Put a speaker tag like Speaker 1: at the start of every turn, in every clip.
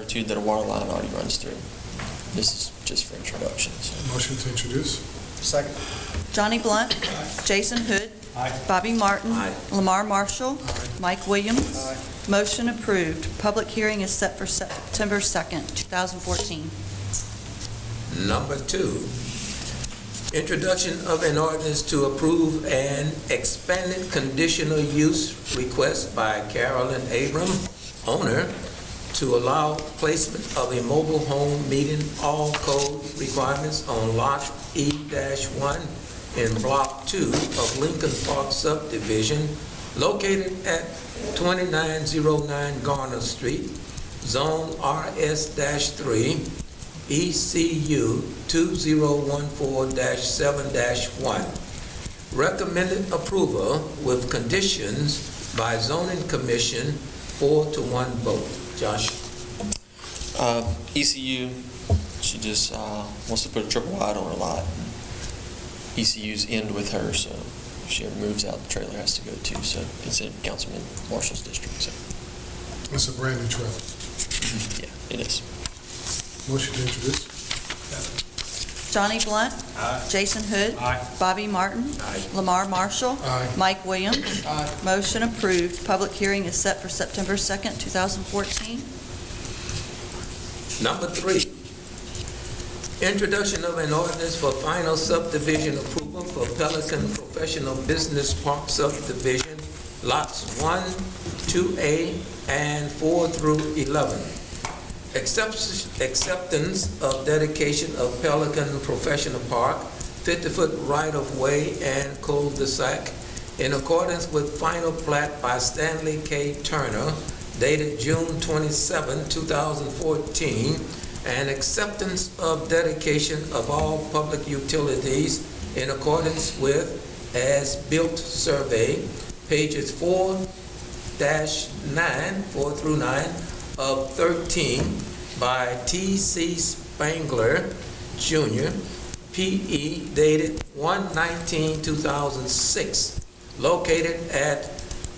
Speaker 1: two that a water line already runs through. This is just for introductions.
Speaker 2: Motion to introduce?
Speaker 3: Second.
Speaker 4: Johnny Blunt. Jason Hood. Bobby Martin.
Speaker 3: Aye.
Speaker 4: Lamar Marshall.
Speaker 2: Aye.
Speaker 4: Mike Williams. Motion approved. Public hearing is set for September 2nd, 2014.
Speaker 3: Number two, introduction of an ordinance to approve an expanded conditional use request by Carolyn Abram, owner, to allow placement of a mobile home meeting all code requirements on Lot E-1 in Block 2 of Lincoln Park subdivision located at 2909 Garner Street, Zone RS-3, E ECU 2014-7-1. Recommended approval with conditions by zoning commission, four to one vote. Josh?
Speaker 1: Uh, ECU, she just uh, wants to put a triple wide on her lot. ECU's end with her, so if she ever moves out, the trailer has to go too, so it's in Councilman Marshall's district, so,
Speaker 2: That's a brand new trailer.
Speaker 1: yeah, it is.
Speaker 2: Motion to introduce?
Speaker 4: Johnny Blunt. Jason Hood. Bobby Martin.
Speaker 3: Aye.
Speaker 4: Lamar Marshall.
Speaker 2: Aye.
Speaker 4: Mike Williams. Motion approved. Public hearing is set for September 2nd, 2014.
Speaker 3: Number three, introduction of an ordinance for final subdivision approval for Pelican Professional Business Park subdivision, lots 1, 2A, and 4 through 11. Accepts- Acceptance of dedication of Pelican Professional Park, 50-foot right-of-way and cul-de-sac in accordance with final plat by Stanley K. Turner, dated June 27, 2014, and acceptance of dedication of all public utilities in accordance with as-built survey, pages 4-9, 4 through 9, of 13 by T.C. Spangler Jr., P.E., dated 1/19/2006, located at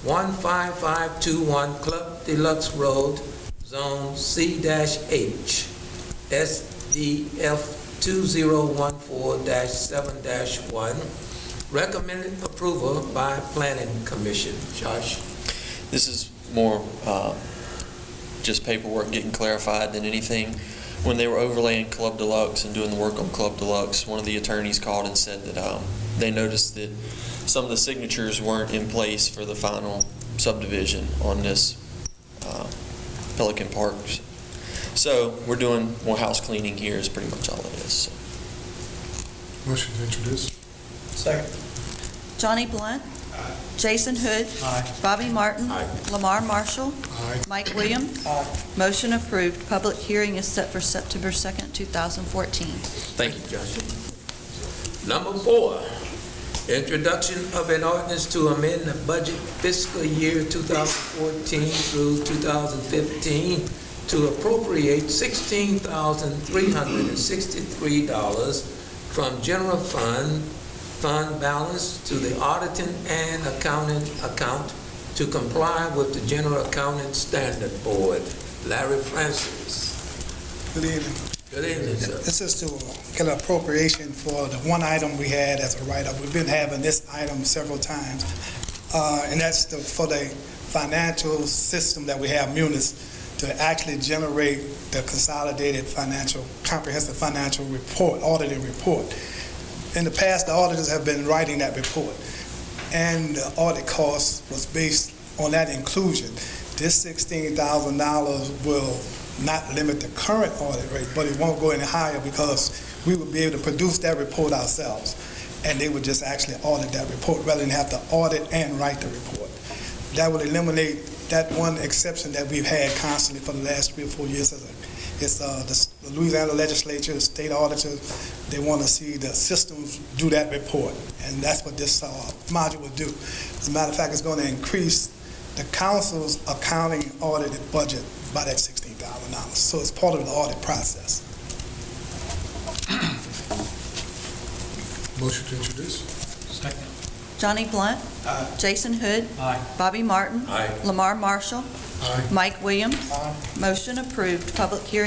Speaker 3: 15521 Club Deluxe Road, Zone C-H, SDF 2014-7-1. Recommended approval by Planning Commission. Josh?
Speaker 1: This is more uh, just paperwork getting clarified than anything. When they were overlaying Club Deluxe and doing the work on Club Deluxe, one of the attorneys called and said that um, they noticed that some of the signatures weren't in place for the final subdivision on this uh, Pelican Park. So we're doing more house cleaning here is pretty much all it is. so.
Speaker 2: Motion to introduce?
Speaker 3: Second.
Speaker 4: Johnny Blunt. Jason Hood. Bobby Martin.
Speaker 3: Aye.
Speaker 4: Lamar Marshall.
Speaker 2: Aye.
Speaker 4: Mike Williams. Motion approved. Public hearing is set for September 2nd, 2014.
Speaker 3: Thank you, Josh. Number four, introduction of an ordinance to amend the budget fiscal year 2014 through 2015 to appropriate $16,363 from general fund, fund balance to the auditing and accounting account to comply with the general accounting standard board. Larry Francis.
Speaker 5: Good evening.
Speaker 3: Good evening, sir.
Speaker 5: This is to get an appropriation for the one item we had as a write-up. We've been having this item several times, uh, and that's the- for the financial system that we have, Munis, to actually generate the consolidated financial, comprehensive financial report, audited report. In the past, the auditors have been writing that report, and the audit cost was based on that inclusion. This $16,000 will not limit the current audit rate, but it won't go any higher because we would be able to produce that report ourselves. And they would just actually audit that report rather than have to audit and write the report. That would eliminate that one exception that we've had constantly for the last three or four years. It's uh, the Louisiana legislature, the state auditors, they want to see the systems do that report. And that's what this uh, module will do. As a matter of fact, it's going to increase the council's accounting audited budget by that sixteen thousand dollars. So it's part of the audit process.
Speaker 2: Motion to introduce?
Speaker 4: Johnny Blunt. Jason Hood. Bobby Martin.
Speaker 3: Aye.
Speaker 4: Lamar Marshall.
Speaker 2: Aye.
Speaker 4: Mike Williams.
Speaker 5: Aye.
Speaker 4: Motion approved. Public hearing